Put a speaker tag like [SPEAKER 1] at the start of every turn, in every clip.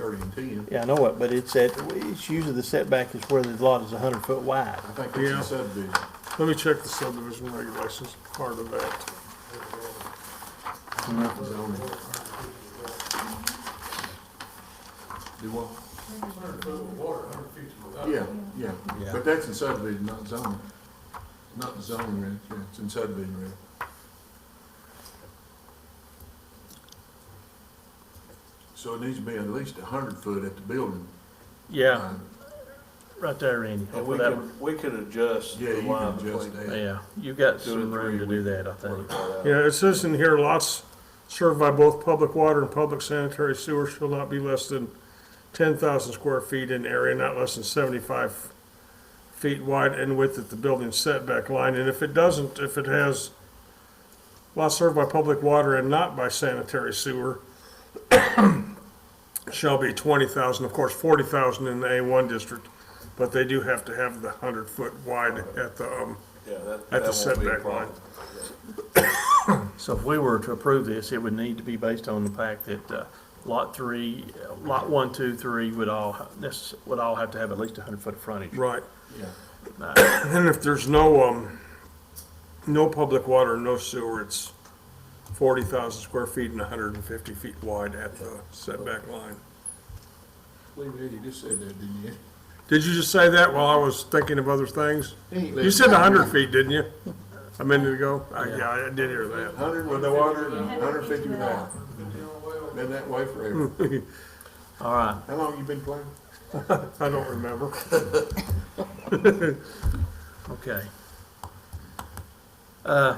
[SPEAKER 1] coming to you.
[SPEAKER 2] Yeah, I know it, but it's at, it's usually the setback is where the lot is a hundred foot wide.
[SPEAKER 1] I think it's
[SPEAKER 3] Yeah.
[SPEAKER 1] a subdivision.
[SPEAKER 3] Let me check the subdivision regulations part of that.
[SPEAKER 1] Nothing zoning. Do what? Yeah, yeah,
[SPEAKER 4] Yeah.
[SPEAKER 1] but that's in subdivision, not zoning. Not in zoning, Reg, yeah, it's in subdivision, Reg. So it needs to be at least a hundred foot at the building.
[SPEAKER 2] Yeah,
[SPEAKER 1] line.
[SPEAKER 2] right there, Randy.
[SPEAKER 5] And we can, we can adjust
[SPEAKER 1] Yeah,
[SPEAKER 5] the
[SPEAKER 1] you
[SPEAKER 5] line
[SPEAKER 1] can
[SPEAKER 5] between.
[SPEAKER 1] adjust that.
[SPEAKER 2] Yeah, you've got
[SPEAKER 5] Two and
[SPEAKER 2] some room
[SPEAKER 5] three,
[SPEAKER 2] to
[SPEAKER 5] we
[SPEAKER 2] do that, I think.
[SPEAKER 5] work that out.
[SPEAKER 3] Yeah, it says in here, lots served by both public water and public sanitary sewer shall not be less than ten thousand square feet in area, not less than seventy-five feet wide and width at the building setback line, and if it doesn't, if it has lots served by public water and not by sanitary sewer shall be twenty thousand, of course, forty thousand in the A one district, but they do have to have the hundred foot wide at the, um,
[SPEAKER 5] Yeah, that,
[SPEAKER 3] At the
[SPEAKER 5] that won't be a
[SPEAKER 3] setback line.
[SPEAKER 5] problem.
[SPEAKER 2] So if we were to approve this, it would need to be based on the fact that, uh, lot three, uh, lot one, two, three would all, ha- this, would all have to have at least a hundred foot of frontage.
[SPEAKER 3] right.
[SPEAKER 1] Yeah.
[SPEAKER 3] And if there's no, um, no public water, no sewer, it's forty thousand square feet and hundred and fifty feet wide at the setback line.
[SPEAKER 1] Lee, Reg, you just said that, didn't you?
[SPEAKER 3] Did you just say that while I was thinking of other things? You said hundred feet, didn't you? A minute ago? I- Yeah, I did hear that.
[SPEAKER 1] Hundred with the water and hundred fifty without. Been that way forever.
[SPEAKER 2] All right,
[SPEAKER 1] How long you been playing?
[SPEAKER 3] I don't remember.
[SPEAKER 2] okay. Uh,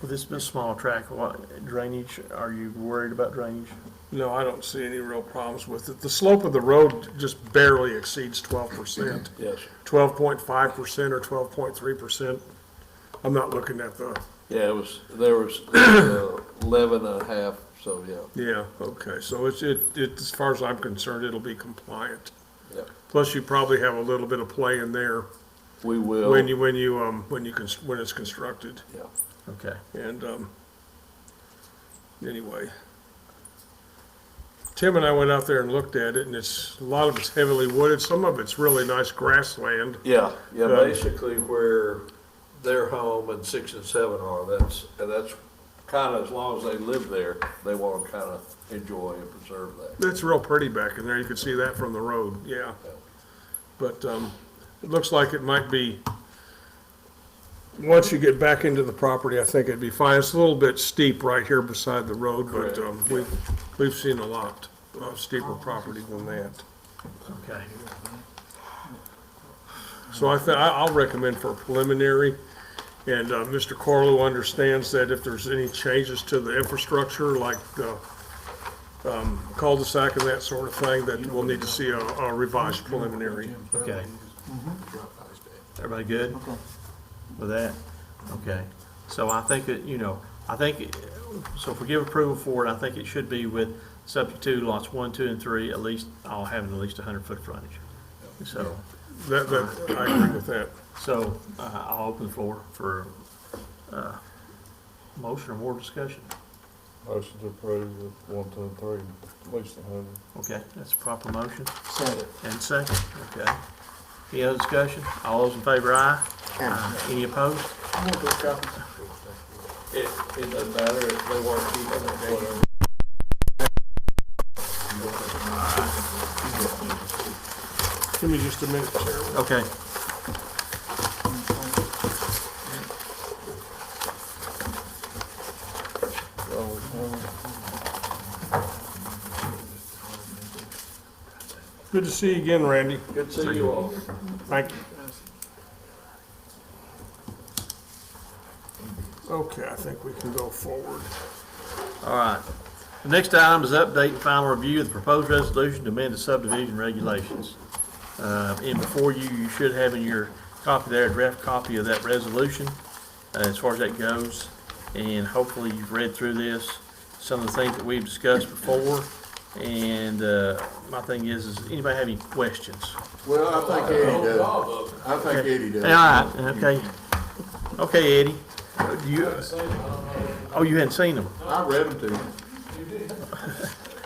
[SPEAKER 2] Well, this is a small track, what, drainage, are you worried about drainage?
[SPEAKER 3] No, I don't see any real problems with it. The slope of the road just barely exceeds twelve percent.
[SPEAKER 5] Yes,
[SPEAKER 3] Twelve point five percent or twelve point three percent. I'm not looking at the
[SPEAKER 5] yeah, it was, there was uh, eleven and a half, so, yeah,
[SPEAKER 3] Yeah, okay, so it's, it, it, as far as I'm concerned, it'll be compliant.
[SPEAKER 5] yeah.
[SPEAKER 3] Plus, you probably have a little bit of play in there
[SPEAKER 5] We will.
[SPEAKER 3] when you, when you, um, when you, cons- when it's constructed,
[SPEAKER 5] Yeah.
[SPEAKER 2] Okay.
[SPEAKER 3] and, um, anyway. Tim and I went out there and looked at it, and it's, a lot of it's heavily wooded, some of it's really nice grassland.
[SPEAKER 5] Yeah, yeah,
[SPEAKER 3] Um,
[SPEAKER 5] basically where their home and six and seven are, that's, and that's kind of, as long as they live there, they want to kind of enjoy and preserve that.
[SPEAKER 3] It's real pretty back in there, you can see that from the road, yeah. But, um, it looks like it might be, once you get back into the property, I think it'd be fine. It's a little bit steep right here beside the road, but,
[SPEAKER 5] Correct.
[SPEAKER 3] um, we've, we've seen a lot of steeper property than that.
[SPEAKER 2] Okay,
[SPEAKER 3] So I think, I'll recommend for a preliminary, and uh, Mr. Corlo understands that if there's any changes to the infrastructure, like the um, cul-de-sac and that sort of thing, that we'll need to see a a revised preliminary.
[SPEAKER 2] Okay.
[SPEAKER 1] Drop by his dad.
[SPEAKER 2] everybody good? With that? Okay. So I think that, you know, I think, it- so if we give approval for it, I think it should be with subject to lots one, two, and three, at least, all having at least a hundred foot frontage. So,
[SPEAKER 3] That, that, I agree with that.
[SPEAKER 2] so uh, I'll open the floor for, uh, motion or more discussion.
[SPEAKER 6] Motion to approve with one, two, and three, at least a hundred.
[SPEAKER 2] Okay, that's a proper motion.
[SPEAKER 4] Second.
[SPEAKER 2] And second, okay. Any other discussion? All those in favor, aye? Aye. Any opposed?
[SPEAKER 5] It, it doesn't matter if they want to keep it or whatever.
[SPEAKER 3] Give me just a minute, Chair.
[SPEAKER 2] Okay.
[SPEAKER 3] Good to see you again, Randy.
[SPEAKER 5] Good to see you all.
[SPEAKER 3] Thank you. Okay, I think we can go forward.
[SPEAKER 2] All right. The next item is update and final review of the proposed resolution to amend the subdivision regulations. Uh, And before you, you should have in your copy there, a draft copy of that resolution, uh, as far as that goes. And hopefully you've read through this, some of the things that we've discussed before. And uh, my thing is, is anybody have any questions?
[SPEAKER 1] Well, I think Eddie does. I think Eddie does.
[SPEAKER 2] All right, okay. Okay, Eddie. Uh, do you- Oh, you hadn't seen them?
[SPEAKER 1] I read them to him.